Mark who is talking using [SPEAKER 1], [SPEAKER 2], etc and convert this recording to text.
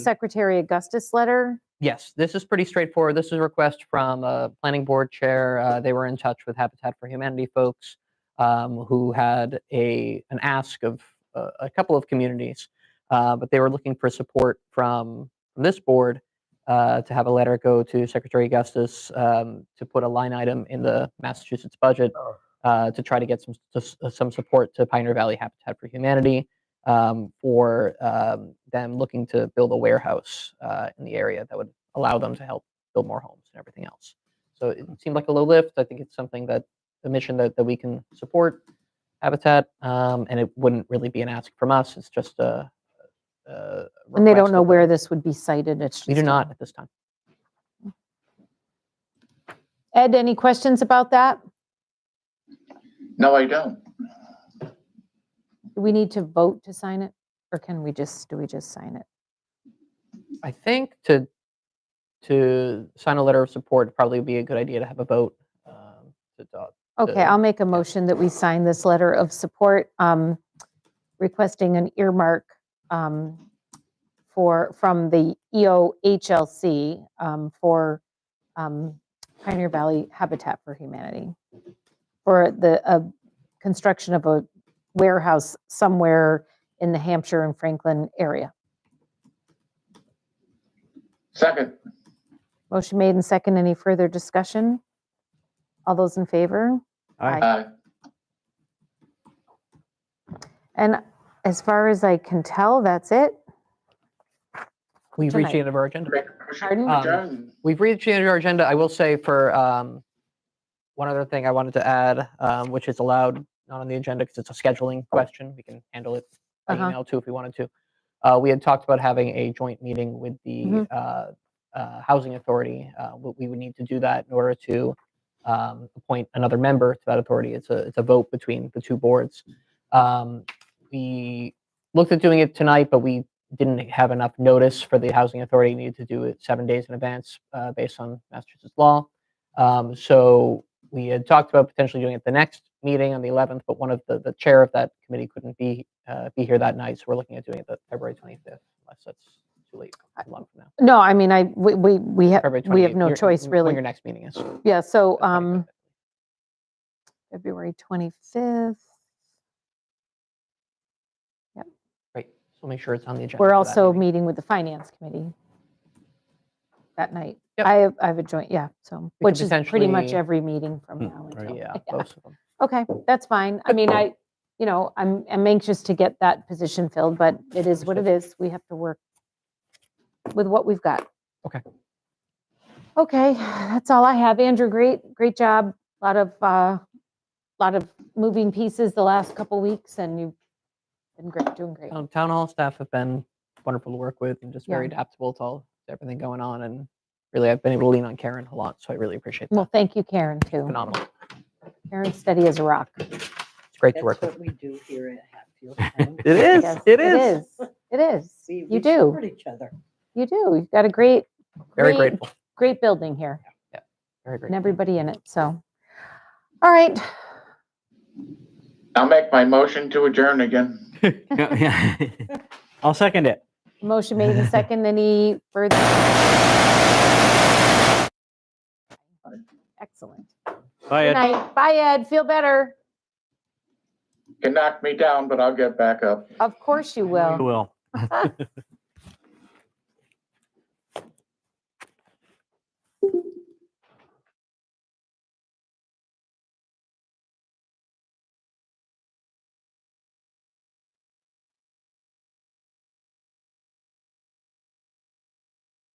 [SPEAKER 1] Secretary Augustus letter.
[SPEAKER 2] Yes, this is pretty straightforward. This is a request from a planning board chair. Uh, They were in touch with Habitat for Humanity folks um, who had a, an ask of uh, a couple of communities, uh, but they were looking for support from from this board uh, to have a letter go to Secretary Augustus um, to put a line item in the Massachusetts budget
[SPEAKER 3] Oh.
[SPEAKER 2] uh, to try to get some, to s- some support to Pioneer Valley Habitat for Humanity um, for um, them looking to build a warehouse uh, in the area that would allow them to help build more homes and everything else. So it
[SPEAKER 1] Hmm.
[SPEAKER 2] seemed like a low lift. I think it's something that a mission that, that we can support Habitat, um, and it wouldn't really be an ask from us. It's just a. a
[SPEAKER 1] And they
[SPEAKER 2] request
[SPEAKER 1] don't know
[SPEAKER 2] of-
[SPEAKER 1] where this would be cited. It's
[SPEAKER 2] We do
[SPEAKER 1] just-
[SPEAKER 2] not at this time.
[SPEAKER 1] Ed, any questions about that?
[SPEAKER 4] No, I don't.
[SPEAKER 1] Do we need to vote to sign it? Or can we just, do we just sign it?
[SPEAKER 2] I think to to sign a letter of support probably would be a good idea to have a vote. Um, to adopt.
[SPEAKER 1] Okay,
[SPEAKER 2] Uh,
[SPEAKER 1] I'll make a motion that we sign this letter of support um, requesting an earmark um, for, from the E EOHLC um, for um, Pioneer Valley Habitat for Humanity for the uh, construction of a warehouse somewhere in the Hampshire and Franklin area.
[SPEAKER 4] Second,
[SPEAKER 1] Motion made and second. Any further discussion? All those in favor? Aye.
[SPEAKER 4] aye.
[SPEAKER 1] And as far as I can tell, that's it.
[SPEAKER 2] We've reached
[SPEAKER 1] Tonight.
[SPEAKER 2] the end of our agenda.
[SPEAKER 4] Make a motion
[SPEAKER 1] Pardon?
[SPEAKER 4] to
[SPEAKER 2] Um,
[SPEAKER 4] adjourn.
[SPEAKER 2] We've reached the end of our agenda. I will say for um, one other thing I wanted to add, um, which is allowed not on the agenda because it's a scheduling question. We can handle it by
[SPEAKER 1] Uh-huh.
[SPEAKER 2] email too if we wanted to. Uh, we had talked about having a joint meeting with the
[SPEAKER 1] Mhm.
[SPEAKER 2] uh, uh, housing authority. Uh, we, we would need to do that in order to um, appoint another member to that authority. It's a it's a vote between the two boards. Um, we looked at doing it tonight, but we didn't have enough notice for the housing authority needed to do it seven days in advance uh, based on Massachusetts law. Um, so we had talked about potentially doing it the next meeting on the 11th, but one of the, the chair of that committee couldn't be uh, be here that night, so we're looking at doing it the February 25th, unless that's too late, too long from now.
[SPEAKER 1] No, I mean, I, we, we, we have,
[SPEAKER 2] February
[SPEAKER 1] Uh, we have
[SPEAKER 2] 28th,
[SPEAKER 1] no
[SPEAKER 2] your-
[SPEAKER 1] choice
[SPEAKER 2] when Your
[SPEAKER 1] really.
[SPEAKER 2] next meeting is. the
[SPEAKER 1] Yeah, so,
[SPEAKER 2] 25th.
[SPEAKER 1] um, February 25th,
[SPEAKER 2] Great. So we'll make sure it's on the agenda.
[SPEAKER 1] we're
[SPEAKER 2] for that
[SPEAKER 1] also
[SPEAKER 2] meeting.
[SPEAKER 1] meeting with the finance committee that night.
[SPEAKER 2] Yep.
[SPEAKER 1] I have, I have a joint, yeah, so,
[SPEAKER 2] We could
[SPEAKER 1] which is pretty much
[SPEAKER 2] potentially-
[SPEAKER 1] every meeting from
[SPEAKER 3] Hmm,
[SPEAKER 1] now until.
[SPEAKER 2] Yeah, most of them.
[SPEAKER 1] Okay, that's fine. I mean, I, you know, I'm, I'm anxious to get that position filled, but it is what it is. We have to work with what we've got.
[SPEAKER 2] Okay.
[SPEAKER 1] Okay, that's all I have. Andrew, great, great job. Lot of, uh, lot of moving pieces the last couple weeks and you've been great, doing great.
[SPEAKER 2] Town- Town hall staff have been wonderful to work with and just
[SPEAKER 1] Yeah.
[SPEAKER 2] very adaptable to all, to everything going on. And really, I've been able to lean on Karen a lot, so I really appreciate that.
[SPEAKER 1] Well, thank you, Karen, too.
[SPEAKER 2] Phenomenal.
[SPEAKER 1] Karen's steady as a rock.
[SPEAKER 2] It's great to
[SPEAKER 5] That's
[SPEAKER 2] work with.
[SPEAKER 5] what we do here at Hatfield. Town.
[SPEAKER 2] It is,
[SPEAKER 1] Yes,
[SPEAKER 2] it is.
[SPEAKER 1] It is.
[SPEAKER 5] We- we
[SPEAKER 1] You do,
[SPEAKER 5] support each other.
[SPEAKER 1] you do. You've got a great,
[SPEAKER 2] Very
[SPEAKER 1] great-
[SPEAKER 2] grateful,
[SPEAKER 1] great building here.
[SPEAKER 2] very
[SPEAKER 1] and
[SPEAKER 2] grateful.
[SPEAKER 1] everybody in it, so. All right,
[SPEAKER 4] I'll make my motion to adjourn again.
[SPEAKER 3] Yeah, yeah. I'll second it.
[SPEAKER 1] motion made and second, any further? Excellent.
[SPEAKER 3] Bye,
[SPEAKER 1] Good
[SPEAKER 3] Ed.
[SPEAKER 1] night, bye Ed, feel better,
[SPEAKER 4] Can knock me down, but I'll get back up.
[SPEAKER 1] of course you
[SPEAKER 3] You
[SPEAKER 1] will.
[SPEAKER 3] will.